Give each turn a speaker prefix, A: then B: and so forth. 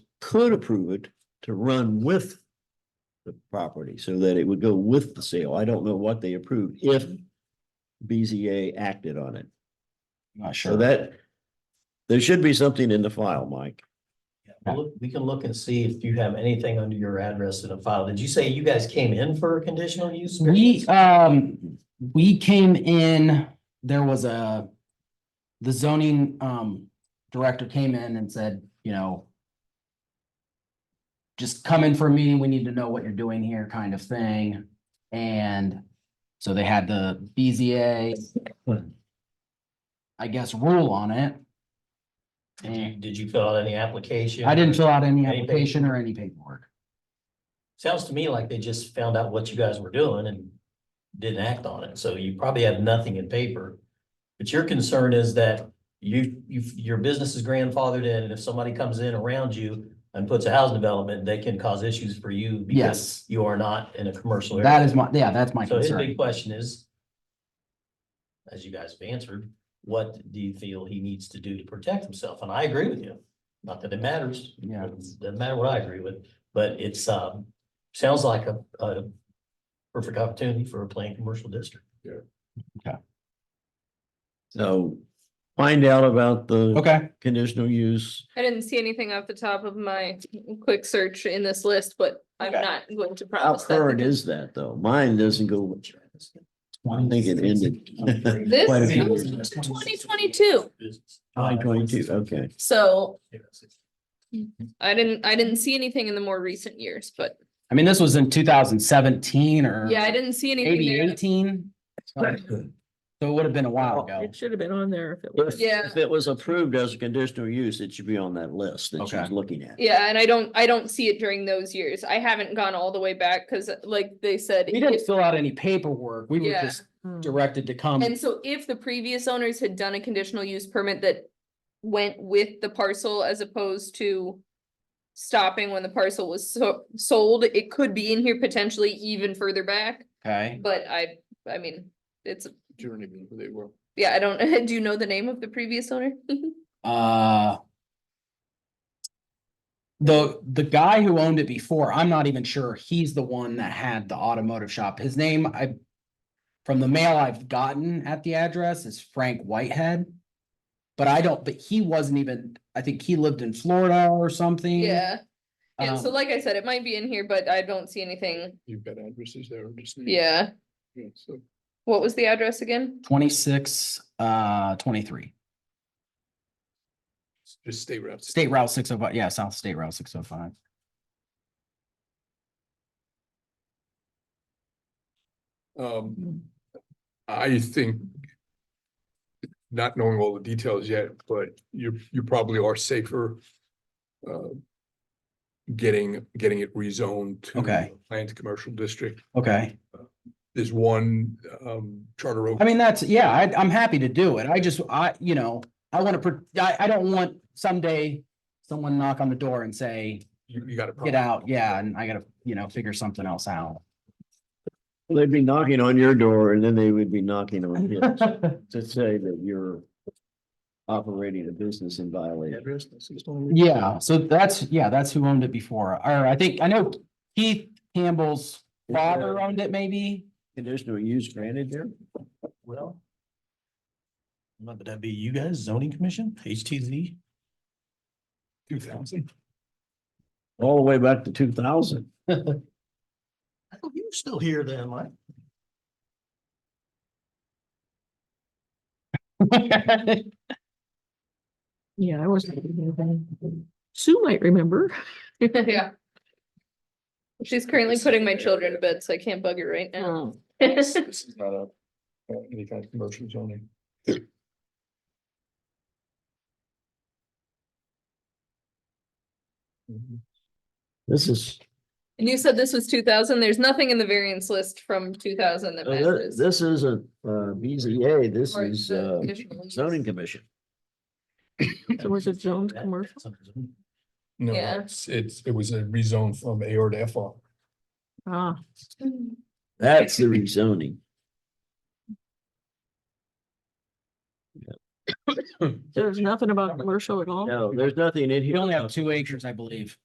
A: could approve it to run with the property so that it would go with the sale. I don't know what they approved if BZA acted on it.
B: Not
A: So
B: sure.
A: that there should be something in the file, Mike.
C: We'll look- We can look and see if you have anything under your address in a file. Did you say you guys came in for a conditional use?
B: We, um, we came in, there was a, the zoning, um, director came in and said, you know, just come in for a meeting, we need to know what you're doing here kind of thing. And so they had the BZA, I guess, rule on it.
C: Did you, did you fill out any application?
B: I didn't fill out any
C: Any paper-
B: application or any paperwork.
C: Sounds to me like they just found out what you guys were doing and didn't act on it. So you probably have nothing in paper. But your concern is that you, you, your business is grandfathered in and if somebody comes in around you and puts a housing development, they can cause issues for you. because
B: Yes.
C: You are not in a commercial area.
B: That is my, yeah, that's my
C: So his
B: concern.
C: big question is, as you guys have answered, what do you feel he needs to do to protect himself? And I agree with you. Not that it matters.
B: Yeah.
C: Doesn't matter what I agree with, but it's, um, sounds like a, a perfect opportunity for a planned commercial district.
A: So find out about the
B: Okay,
A: conditional use.
D: I didn't see anything off the top of my quick search in this list, but I'm
B: Okay.
D: not going to
A: How
D: promise that.
A: current is that though? Mine doesn't go, I think it ended.
D: This
A: Quite a few
D: goes
A: years.
D: to twenty twenty-two,
A: Nine twenty-two, okay.
D: so I didn't, I didn't see anything in the more recent years, but
B: I mean, this was in two thousand seventeen or.
D: yeah, I didn't see anything.
B: maybe
D: there.
B: eighteen. So it would have been a while ago.
E: It should have been on there if it
A: If,
E: was.
D: Yeah.
A: if it was approved as a conditional use, it should be on that list that she's
B: Okay.
A: looking at.
D: Yeah, and I don't, I don't see it during those years. I haven't gone all the way back, cause like they said.
B: We didn't
D: if-
B: fill out any paperwork. We were
D: Yeah.
B: just
E: Hmm.
B: directed to come.
D: And so if the previous owners had done a conditional use permit that went with the parcel as opposed to stopping when the parcel was so, sold, it could be in here potentially even further back,
B: Okay.
D: but I, I mean, it's,
F: Journey, who they were.
D: yeah, I don't, do you know the name of the previous owner?
A: Mm,
B: Uh. The, the guy who owned it before, I'm not even sure he's the one that had the automotive shop. His name, I. From the mail I've gotten at the address is Frank Whitehead. But I don't, but he wasn't even, I think he lived in Florida or something.
D: Yeah, and so
B: Um,
D: like I said, it might be in here, but I don't see anything.
F: You've got addresses there, I'm
A: Hmm.
F: just. saying.
D: Yeah,
F: Yeah, so
D: what was the address again?
B: Twenty-six, uh, twenty-three.
F: just stay right.
B: State Route six oh five, yeah, South State Route six oh five.
D: Mm-hmm.
F: Um, I think. Not knowing all the details yet, but you, you probably are safer. uh, Getting, getting it rezoned to.
B: Okay.
F: Planned commercial district.
B: Okay,
F: There's one, um, charter oak.
B: I mean, that's, yeah, I, I'm happy to do it. I just, I, you know, I want to, I, I don't want someday someone knock on the door and say,
F: You, you got to
B: get out, yeah, and I gotta, you know, figure something else out.
A: Well, They'd be knocking on your door and then they would be knocking on his to say that you're operating a business in violation.
F: Address. that's the only-
B: Yeah, so that's, yeah, that's who owned it before. Or I think, I know Keith Campbell's
A: Is there
B: father owned it maybe?
A: Conditional use granted there?
C: Well. Would that be you guys, zoning commission, HTZ?
F: Two thousand.
A: All the way back to two thousand.
C: Oh, You're still here then, Mike.
E: Yeah, I wasn't. Sue might remember.
D: Yeah. She's currently putting my children to bed, so I can't bug her right
A: Oh.
D: now.
F: This is not a, uh, any kind of commercial zoning.
A: This is,
D: And you said this was two thousand, there's nothing in the variance list from two thousand that
A: uh, thi-
D: matches.
A: this is a, uh, BZA, this
D: or
A: is,
D: the
A: uh,
D: conditional use.
A: zoning commission.
E: So was it zoned
C: That-
E: commercial?
C: that's under zoning.
F: No,
D: Yeah.
F: it's, it's, it was a rezone from AR to FR.
E: Ah,
D: Hmm.
A: That's the rezoning.
E: there's nothing about commercial at all?
A: No, there's nothing in here.
B: We only have two acres, I believe.